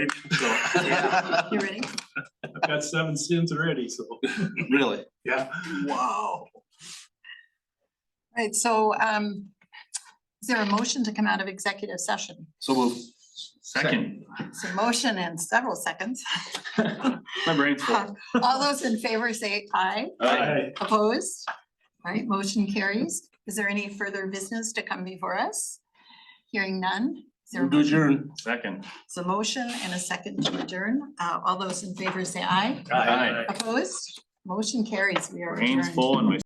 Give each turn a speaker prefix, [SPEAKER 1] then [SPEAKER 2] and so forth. [SPEAKER 1] So,
[SPEAKER 2] Yeah.
[SPEAKER 3] You ready?
[SPEAKER 1] I've got seven sins already, so.
[SPEAKER 2] Really?
[SPEAKER 1] Yeah. Wow.
[SPEAKER 3] Right, so um, is there a motion to come out of executive session?
[SPEAKER 2] So move. Second.
[SPEAKER 3] It's a motion and several seconds.
[SPEAKER 2] My brain's full.
[SPEAKER 3] All those in favor say aye,
[SPEAKER 1] Aye.
[SPEAKER 3] opposed? All right, motion carries. Is there any further business to come before us? Hearing none? Is there a
[SPEAKER 2] Do
[SPEAKER 3] motion?
[SPEAKER 2] adjourn. Second.
[SPEAKER 3] It's a motion and a second to adjourn. Uh, All those in favor say aye,
[SPEAKER 2] Aye.
[SPEAKER 3] opposed? Motion carries. We are
[SPEAKER 2] Brain's
[SPEAKER 3] adjourned.
[SPEAKER 2] full and my